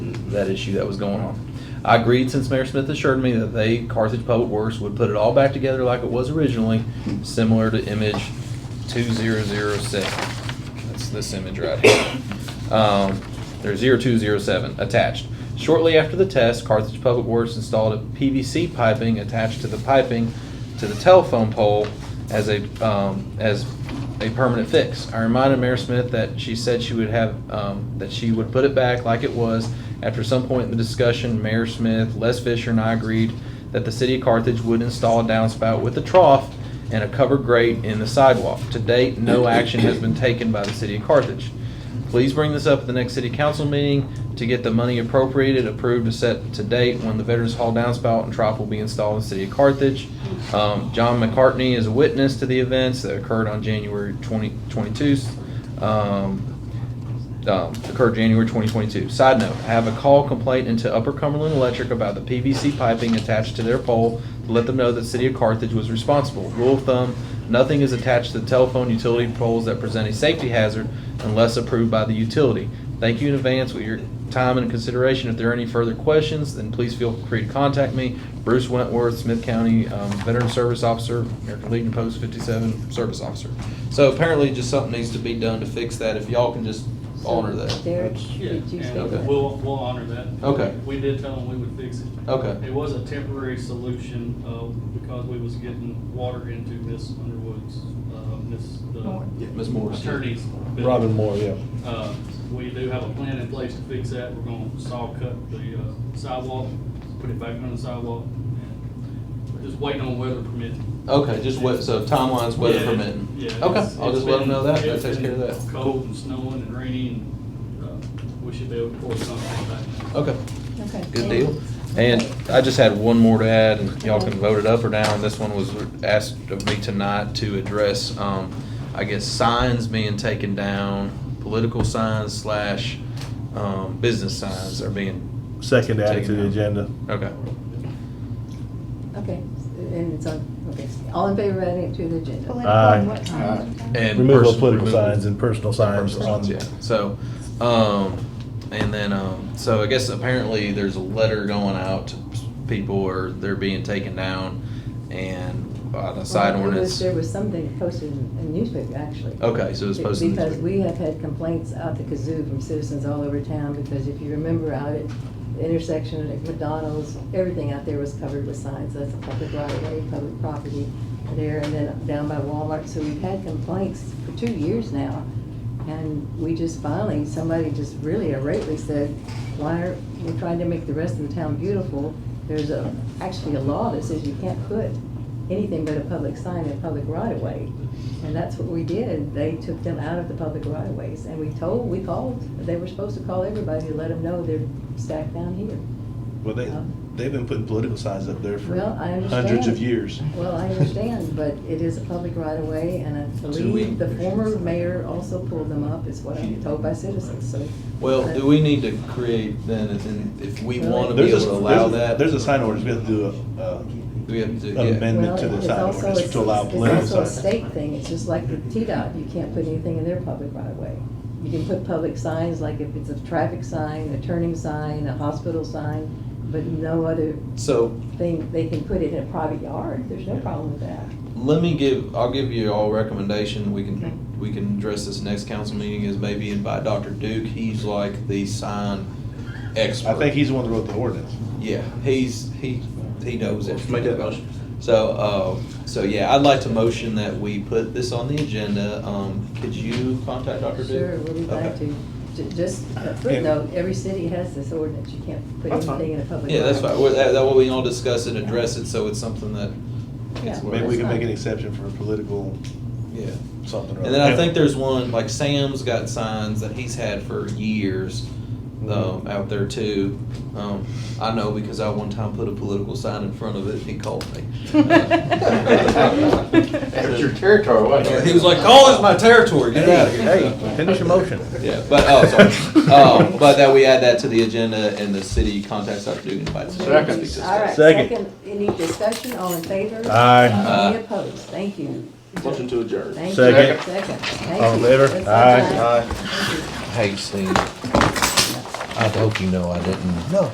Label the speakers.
Speaker 1: that issue that was going on. I agreed since Mayor Smith assured me that they, Carthage Public Works, would put it all back together like it was originally, similar to image two zero zero seven. That's this image right here. Um, there's zero two zero seven attached. Shortly after the test, Carthage Public Works installed a PVC piping attached to the piping to the telephone pole as a, um, as a permanent fix. I reminded Mayor Smith that she said she would have, um, that she would put it back like it was. After some point in the discussion, Mayor Smith, Les Fisher, and I agreed that the city of Carthage would install a downspout with a trough and a covered grate in the sidewalk. To date, no action has been taken by the city of Carthage. Please bring this up at the next city council meeting to get the money appropriated, approved, to set to date when the Veterans Hall downspout and trough will be installed in the city of Carthage. Um, John McCartney is a witness to the events that occurred on January 2022. Um, um, occurred January 2022. Side note, I have a call complaint into Upper Cumberland Electric about the PVC piping attached to their pole to let them know that City of Carthage was responsible. Rule of thumb, nothing is attached to the telephone utility poles that present a safety hazard unless approved by the utility. Thank you in advance for your time and consideration. If there are any further questions, then please feel free to contact me. Bruce Wentworth, Smith County um, Veteran Service Officer, American Legion Post 57 Service Officer. So apparently just something needs to be done to fix that. If y'all can just honor that.
Speaker 2: Derek,
Speaker 3: Yeah,
Speaker 2: did you say
Speaker 1: Okay.
Speaker 3: and
Speaker 2: that?
Speaker 3: we'll, we'll honor that.
Speaker 1: Okay.
Speaker 3: We did tell them we would fix it.
Speaker 1: Okay.
Speaker 3: It was a temporary solution, uh, because we was getting water into Miss Underwood's, uh, Miss,
Speaker 2: Moore.
Speaker 3: the
Speaker 1: Ms. Morris.
Speaker 3: attorney's. business.
Speaker 4: Robin Moore, yeah.
Speaker 3: Uh, we do have a plan in place to fix that. We're gonna saw cut the uh, sidewalk, put it back on the sidewalk, and we're just waiting on weather permitting.
Speaker 1: Okay, just wet, so timeline's weather permitting. Okay, I'll just let them know that, that takes care of that.
Speaker 3: Cold and snowing and raining, and, uh, we should be able to pour something back.
Speaker 1: Okay,
Speaker 2: Okay.
Speaker 1: good deal. And I just had one more to add, and y'all can vote it up or down. This one was asked of me tonight to address, um, I guess signs being taken down, political signs slash, um, business signs are being,
Speaker 4: Second added to
Speaker 1: Taken
Speaker 4: the
Speaker 1: out.
Speaker 4: agenda.
Speaker 1: okay.
Speaker 2: Okay, and it's on, okay, all in favor of adding it to the agenda?
Speaker 4: Aye.
Speaker 5: What time?
Speaker 1: And
Speaker 4: Removal
Speaker 1: pers-
Speaker 4: of political
Speaker 1: removal-
Speaker 4: signs and personal signs
Speaker 1: Personal
Speaker 4: on.
Speaker 1: signs, yeah. So, um, and then, um, so I guess apparently there's a letter going out to people or they're being taken down and uh, the side
Speaker 2: Well, there was-
Speaker 1: ordinance.
Speaker 2: There was something posted in a newspaper, actually.
Speaker 1: Okay, so it was posted in the
Speaker 2: Because
Speaker 1: newspaper.
Speaker 2: we have had complaints out the kazoo from citizens all over town, because if you remember out at the intersection at McDonald's, everything out there was covered with signs, that's a public right of way, public property there, and then down by Walmart, so we've had complaints for two years now. And we just finally, somebody just really irately said, why are, we're trying to make the rest of the town beautiful. There's a, actually a law that says you can't put anything but a public sign in public right of way. And that's what we did. They took them out of the public right of ways. And we told, we called, they were supposed to call everybody to let them know they're stacked down here.
Speaker 6: Well, they, they've been putting political signs up there for
Speaker 2: Well, I understand.
Speaker 6: hundreds of years.
Speaker 2: Well, I understand, but it is a public right of way and I believe the former mayor also pulled them up, is what I'm told by citizens, so.
Speaker 1: Well, do we need to create then, if- if we want to be
Speaker 6: There's
Speaker 1: able
Speaker 6: a,
Speaker 1: to allow
Speaker 6: there's a-
Speaker 1: that?
Speaker 6: there's a sign ordinance, we have to do a, uh,
Speaker 1: Do we have to,
Speaker 6: an
Speaker 1: yeah.
Speaker 6: amendment to
Speaker 2: Well,
Speaker 6: the
Speaker 2: it's
Speaker 6: sign
Speaker 2: also-
Speaker 6: ordinance to allow
Speaker 2: it's-
Speaker 6: political
Speaker 2: It's also a
Speaker 6: signs.
Speaker 2: state thing, it's just like the T-Dot, you can't put anything in their public right of way. You can put public signs, like if it's a traffic sign, a turning sign, a hospital sign, but no other
Speaker 1: So
Speaker 2: thing, they can put it in a private yard, there's no problem with that.
Speaker 1: let me give, I'll give you all recommendation, we can, we can address this next council meeting, is maybe invite Dr. Duke, he's like the sign expert.
Speaker 6: I think he's the one that wrote the ordinance.
Speaker 1: Yeah, he's, he, he knows it. Make that motion. So, uh, so yeah, I'd like to motion that we put this on the agenda. Um, could you contact Dr. Duke?
Speaker 2: Sure, we'll be glad
Speaker 1: Okay.
Speaker 2: to. Ju- Just a footnote, every city has this ordinance, you can't put
Speaker 6: That's fine.
Speaker 2: anything in a public.
Speaker 1: Yeah, that's
Speaker 2: right.
Speaker 1: fine. Well, That, that way we can all discuss it, address it, so it's something that,
Speaker 2: Yeah.
Speaker 1: Well,
Speaker 6: Maybe
Speaker 2: that's
Speaker 6: we can make
Speaker 2: fine.
Speaker 6: an exception for political
Speaker 1: yeah.
Speaker 6: something or other.
Speaker 1: And then I think there's one, like Sam's got signs that he's had for years, um, out there too. Um, I know because I one time put a political sign in front of it, he called me.
Speaker 7: That's your territory, wasn't it?
Speaker 1: He was like, "Call this my territory, get out of here."
Speaker 4: Hey, finish your motion.
Speaker 1: Yeah, but, oh, sorry. Um, but that we add that to the agenda and the city contacts Dr. Dugan invites. us to speak to this.
Speaker 2: All right,
Speaker 4: Second.
Speaker 2: second, any discussion, all in favor?
Speaker 4: Aye.
Speaker 2: Any opposed? Thank you.
Speaker 7: Motion to adjourn.
Speaker 2: Thank you.
Speaker 4: Second.
Speaker 2: Second, thank you.
Speaker 4: All in favor?
Speaker 2: That's all
Speaker 4: Aye.
Speaker 2: time.
Speaker 1: Hey, Steve.
Speaker 4: I
Speaker 1: I hope you know I didn't. No,